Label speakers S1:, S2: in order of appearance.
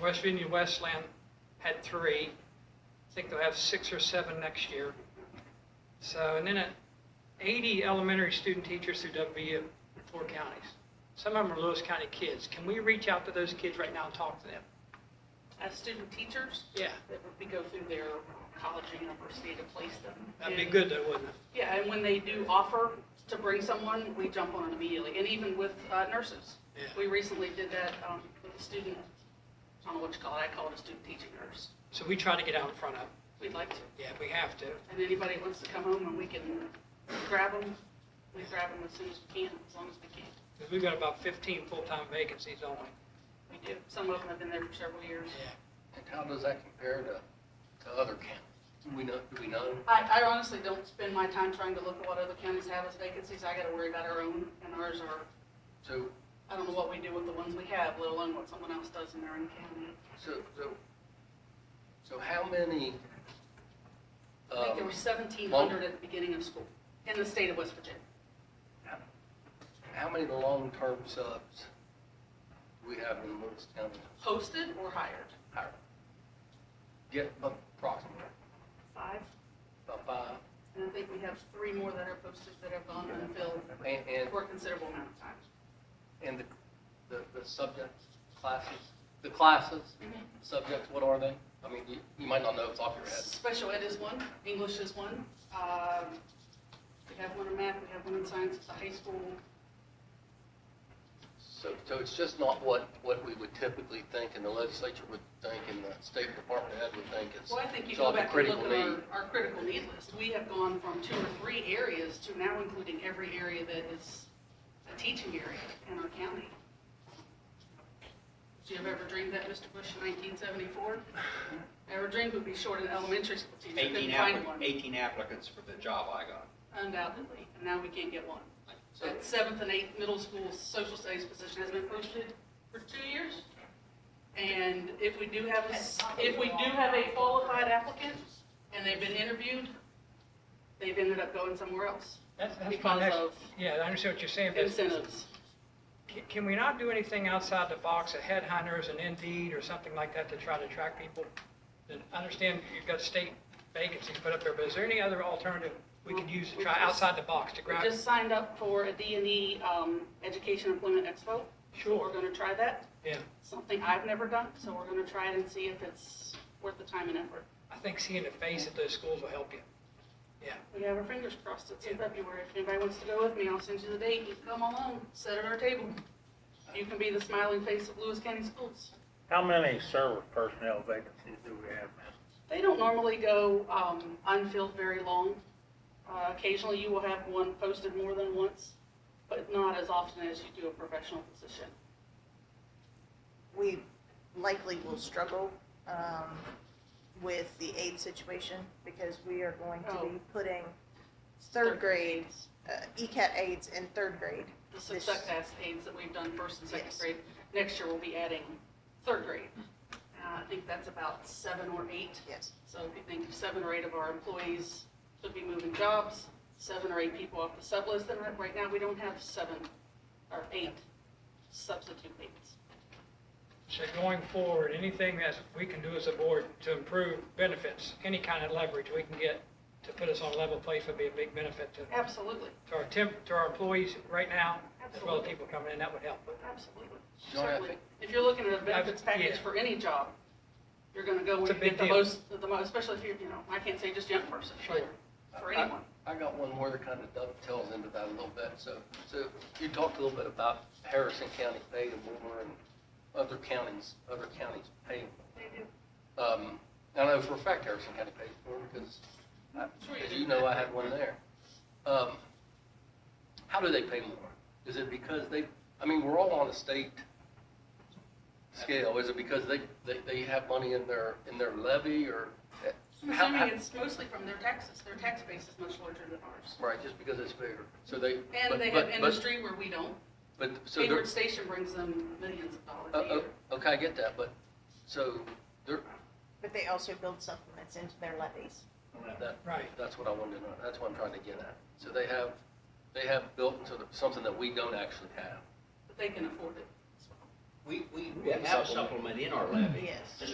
S1: West Virginia Westland had three. I think they'll have six or seven next year. So, and then uh, 80 elementary student teachers through WVU, four counties. Some of them are Lewis County kids. Can we reach out to those kids right now and talk to them?
S2: As student teachers,
S1: Yeah,
S2: that would be go through their college or university to place them.
S1: that'd be
S2: in-
S1: good though, wouldn't it?
S2: Yeah, and when they do offer to bring someone, we jump on it immediately, and even with uh, nurses.
S1: Yeah.
S2: We recently did that um, with a student, I don't know what you call it, I call it a student teaching nurse.
S1: So we try to get out in front of, it.
S2: We'd like to,
S1: yeah, we have to.
S2: and anybody that wants to come home and we can grab them, we grab them as soon as we can, as long as we can.
S1: Because we've got about 15 full-time vacancies only.
S2: We do, some of them have been there for several years.
S3: And how does that compare to, to other counties? Do we know, do we know?
S2: I, I honestly don't spend my time trying to look at what other counties have as vacancies, I gotta worry about our own, and ours are
S3: So,
S2: I don't know what we do with the ones we have, let alone what someone else does in their own county.
S3: so, so, so how many,
S2: I think there
S3: um,
S2: were seventeen hundred at the beginning of school in the state of West Virginia.
S3: how many long-term subs do we have in Lewis County?
S2: Posted or hired?
S3: Hired. Get approximately,
S2: Five.
S3: about five,
S2: And I think we have three more that are posted that have gone unfilled
S3: and, and,
S2: for a considerable amount of time.
S3: and the, the, the subject classes, the classes, subjects, what are they? I mean, you, you might not know off the top of your head.
S2: Special ed is one, English is one. Um, We have one in math, we have one in science at the high school.
S3: So, so it's just not what, what we would typically think and the legislature would think and the state department head would think is.
S2: Well, I think you
S3: it's
S2: go
S3: all the
S2: back and
S3: critical
S2: look at our,
S3: need.
S2: our critical need list. We have gone from two or three areas to now including every area that is a teaching area in our county. Do you have ever dreamed that, Mr. Bush, in nineteen seventy-four? Ever dreamed we'd be short an elementary school teacher,
S4: 18
S2: couldn't
S4: applic-
S2: find one,
S4: 18 applicants for the job I got.
S2: undoubtedly, and now we can't get one.
S3: So-
S2: That seventh and eighth middle school social studies position has been posted for two years. And if we do have, a s- if we do have a qualified applicant and they've been interviewed, they've ended up going somewhere else
S1: That's, that's my
S2: because
S1: next,
S2: of
S1: yeah, I understand what you're saying, but
S2: incentives.
S1: Can- Can we not do anything outside the box, a headhunters, an Indeed, or something like that to try to attract people? And I understand you've got state vacancies put up there, but is there any other alternative we could use to try outside the box to
S2: We
S1: grab?
S2: just signed up for a D and E, um, Education Employment Expo. So We're
S1: Sure,
S2: gonna try that,
S1: yeah.
S2: something I've never done, so we're gonna try it and see if it's worth the time and effort.
S1: I think seeing the face at those schools will help you. Yeah,
S2: We have our fingers crossed, it's in February. If anybody wants to go with me, I'll send you the date. You come along, sit at our table. You can be the smiling face of Lewis County Schools.
S5: How many service personnel vacancies do we have now?
S2: They don't normally go um, unfilled very long. Uh, Occasionally, you will have one posted more than once, but not as often as you do a professional position.
S6: we likely will struggle um, with the aid situation because we are going to be putting third grade, uh, ECAT aides in third grade.
S2: The success aids that we've done first and second
S6: Yes.
S2: grade. Next year, we'll be adding third grade. Uh, I think that's about seven or eight
S6: Yes.
S2: So if you think seven or eight of our employees should be moving jobs, seven or eight people off the sub list, then right- right now, we don't have seven or eight substitute aides.
S1: so going forward, anything that we can do as a board to improve benefits, any kind of leverage we can get to put us on a level place would be a big benefit to,
S2: Absolutely,
S1: to our temp, to our employees right now, as well as people coming in, that would help.
S2: absolutely.
S3: Don't have
S2: Certainly. If you're looking at a benefits
S1: I've- yeah.
S2: package for any job, you're gonna go
S1: It's
S2: where
S1: a
S2: you
S1: big
S2: get the
S1: deal.
S2: most, the most, especially if you're, you know, I can't say just young person, but
S1: Sure.
S2: for
S3: I- I-
S2: anyone.
S3: I got one more that kind of dovetails into that a little bit. So, so you talked a little bit about Harrison County pay and Boomer and other counties, other counties pay. Um, I know for a fact Harrison County pays more because, I-
S2: Sure you
S3: as
S2: do.
S3: you know, I had one there. Um, How do they pay more? Is it because they, I mean, we're all on a state scale. Is it because they, they, they have money in their, in their levy or?
S2: I'm
S3: how- how-
S2: assuming it's mostly from their taxes, their tax base is much larger than ours.
S3: Right, just because it's bigger. So they. but-
S2: And they
S3: but-
S2: have
S3: but-
S2: industry where we don't.
S3: But, so they're,
S2: Hayward Station brings them millions of dollars
S3: uh,
S2: a year.
S3: uh, okay, I get that, but, so they're,
S6: But they also build supplements into their levies.
S3: that,
S1: Right.
S3: that's what I wanted to know. That's what I'm trying to get at. So they have, they have built into the- something that we don't actually have.
S2: But they can afford it.
S3: We, we,
S7: We
S3: we
S7: have a
S3: have a
S7: supplement.
S3: supplement in our levy.
S4: Yes.
S3: It's